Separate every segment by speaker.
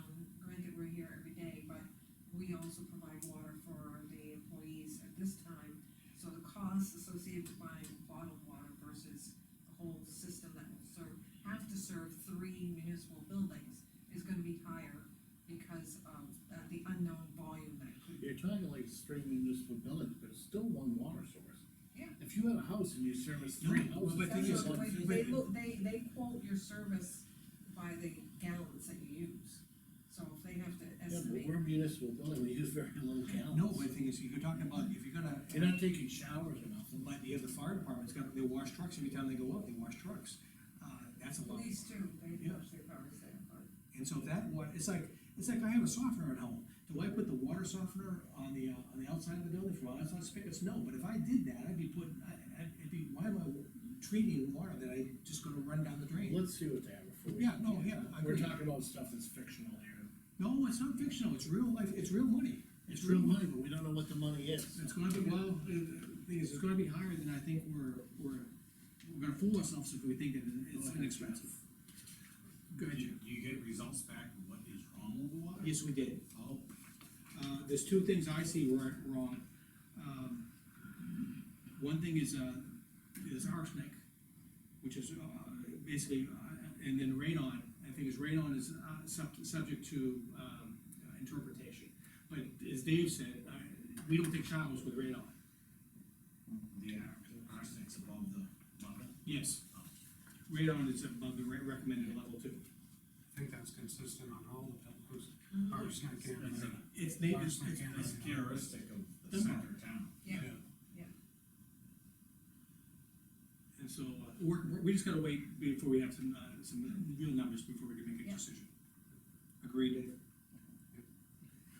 Speaker 1: Um, running water for the employees at this time. So the costs associated with buying bottled water versus the whole system that will serve, have to serve three municipal buildings is gonna be higher because of uh, the unknown volume that could.
Speaker 2: You're talking like stream municipal buildings, but it's still one water source.
Speaker 1: Yeah.
Speaker 2: If you had a house and you service three
Speaker 3: No,
Speaker 2: houses.
Speaker 3: but the thing
Speaker 1: That's
Speaker 3: is,
Speaker 1: what
Speaker 2: that's
Speaker 1: They
Speaker 2: one-
Speaker 1: they look, they, they quote your service by the gallons that you use, so if they have to
Speaker 2: Yeah, but
Speaker 1: estimate.
Speaker 2: we're a municipal building, we use very little gallons.
Speaker 3: No, but the thing is, if you're talking about, if you're gonna,
Speaker 2: You're not taking showers or nothing.
Speaker 3: like the other fire departments, got, they wash trucks every time they go up, they wash trucks. Uh, that's a lot.
Speaker 1: Police too, they
Speaker 3: Yeah.
Speaker 1: touch their cars there, but.
Speaker 3: And so that what, it's like, it's like I have a softener at home. Do I put the water softener on the, uh, on the outside of the building for my outside spigots? No, but if I did that, I'd be putting, I, I'd it'd be, why am I treating water that I just gonna run down the drain?
Speaker 2: Let's see what they have before. we-
Speaker 3: Yeah, no, yeah, I
Speaker 2: We're
Speaker 3: agree.
Speaker 2: talking about stuff that's fictional here.
Speaker 3: No, it's not fictional, it's real life, it's real money.
Speaker 2: It's real money, but we don't know what the money is.
Speaker 3: It's gonna be, well, the the thing is, it's gonna be higher than I think we're, we're, we're gonna fool ourselves if we think that it's inexpensive. Go ahead,
Speaker 4: Do you,
Speaker 3: Jim.
Speaker 4: do you get results back of what is wrong with the water?
Speaker 3: Yes, we did.
Speaker 4: Oh,
Speaker 3: Uh, there's two things I see were wrong. Um, One thing is, uh, is arsenic, which is, uh, basically, uh, and then radon, I think is radon is, uh, sub- subject to, um, uh, interpretation. But as Dave said, uh, we don't take showers with radon.
Speaker 4: the ar- arsenic's above the level.
Speaker 3: Yes. Radon is above the re- recommended level too.
Speaker 5: I think that's consistent on all the pillars, arsenic and.
Speaker 4: It's a-
Speaker 3: It's native,
Speaker 5: Arsenic
Speaker 3: it's-
Speaker 5: and
Speaker 4: It's
Speaker 5: radon.
Speaker 4: characteristic of the
Speaker 3: Doesn't
Speaker 4: center of town.
Speaker 1: Yeah,
Speaker 3: and so, uh, we're, we're- we just gotta wait before we have some, uh, some real numbers before we can make a
Speaker 1: Yeah.
Speaker 3: decision. Agreed, Dave?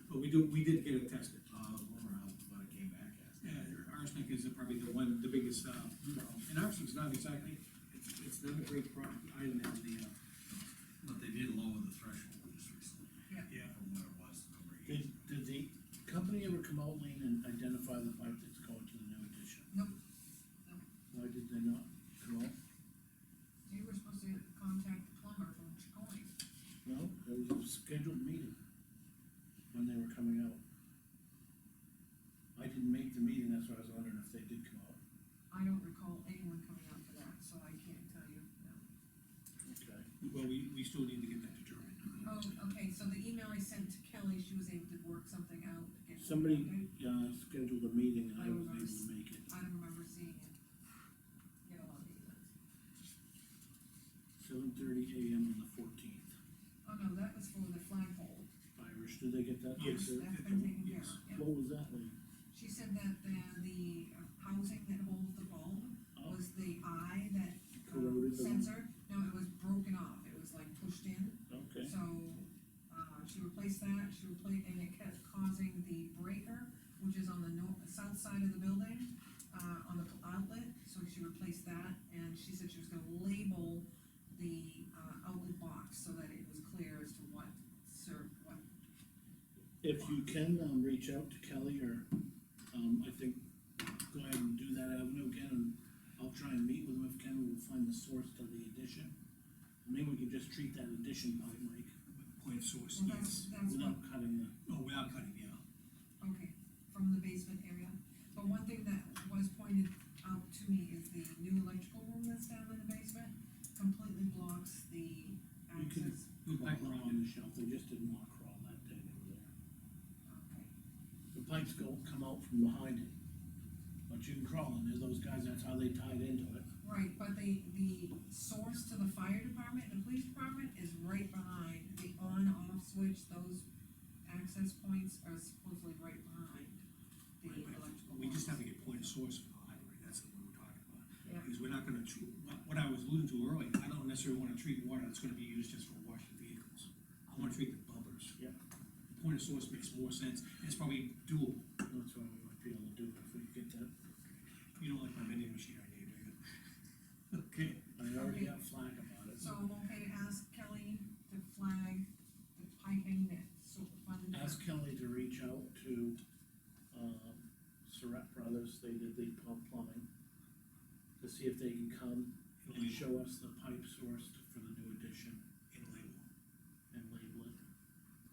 Speaker 3: But we do, we did get it tested.
Speaker 4: Uh, rumor how, what it came back as.
Speaker 3: Yeah, arsenic is probably the one, the biggest, uh, problem. and arsenic's not exactly, it's, it's not a great problem, item in the, uh,
Speaker 4: But they did lower the threshold just recently.
Speaker 1: Yeah.
Speaker 3: Yeah.
Speaker 4: From what it was a number of
Speaker 2: Did,
Speaker 4: years.
Speaker 2: did the company ever come out, Lean, and identify the pipe that's going to the new addition?
Speaker 1: no,
Speaker 2: Why did they not come out?
Speaker 1: you were supposed to contact the plumber from Chicoine.
Speaker 2: No, there was a scheduled meeting when they were coming out. I didn't make the meeting, that's why I was wondering if they did come out.
Speaker 1: I don't recall anyone coming out for that, so I can't tell you, no.
Speaker 2: Okay.
Speaker 3: well, we, we still need to get that determined.
Speaker 1: Oh, okay, so the email I sent to Kelly, she was able to work something out. to get-
Speaker 2: Somebody,
Speaker 1: okay?
Speaker 2: uh, scheduled a meeting and I was able to make it.
Speaker 1: I don't remember seeing it. Get a lot of emails.
Speaker 2: Seven thirty AM on the fourteenth.
Speaker 1: Oh, no, that was for the flagpole.
Speaker 2: Irish, did they get that?
Speaker 3: Yes.
Speaker 1: That's been taken care
Speaker 3: Yes.
Speaker 1: of, yeah.
Speaker 2: What was that, Lee?
Speaker 1: She said that the, the housing that holds the bulb
Speaker 2: Oh,
Speaker 1: was the eye that um,
Speaker 2: Corroded the-
Speaker 1: sensor. No, it was broken off, it was like pushed in.
Speaker 2: okay.
Speaker 1: So, uh, she replaced that, she replaced, and it kept causing the breaker, which is on the north, south side of the building, uh, on the outlet, so she replaced that, and she said she was gonna label the, uh, outlet box so that it was clear as to what served, what.
Speaker 2: If you can, um, reach out to Kelly or, um, I think, go ahead and do that avenue again, and I'll try and meet with him if Ken will find the source to the addition. Maybe we can just treat that addition by Mike,
Speaker 3: Point of source,
Speaker 1: Well,
Speaker 3: yes.
Speaker 1: that's, that's what
Speaker 2: without cutting the,
Speaker 3: Oh, without cutting, yeah.
Speaker 1: Okay, from the basement area. But one thing that was pointed out to me is the new electrical room that's down in the basement completely blocks the
Speaker 2: You can-
Speaker 1: access.
Speaker 3: Go
Speaker 2: the
Speaker 3: back
Speaker 2: rock on
Speaker 3: around.
Speaker 2: the shelf, they just didn't want crawl that day over there.
Speaker 1: Okay,
Speaker 2: The pipes go, come out from behind it, but you can crawl in there, those guys, that's how they tied into it.
Speaker 1: Right, but the, the source to the fire department and the police department is right behind the on-off switch. Those access points are supposedly right behind the
Speaker 3: Right, but
Speaker 1: electrical.
Speaker 3: We just have
Speaker 1: box.
Speaker 3: to get point of source for the library, that's what we're talking about.
Speaker 1: Yeah.
Speaker 3: Because we're not gonna, tr- what, what I was alluding to earlier, I don't necessarily wanna treat water that's gonna be used just for washing vehicles. I wanna treat the bubblers.
Speaker 2: Yeah.
Speaker 3: Point of source makes more sense, and it's probably doable,
Speaker 2: That's why we might be able to do it if we get that.
Speaker 3: you don't like my vending machine idea, do you? Okay,
Speaker 2: I already got flack about it.
Speaker 1: So I'm okay to ask Kelly to flag the piping that's sort of funded.
Speaker 2: ask Kelly to reach out to, um, Surratt Brothers, they did the pump plumbing, to see if they can come and show us the pipe source to- for the new addition.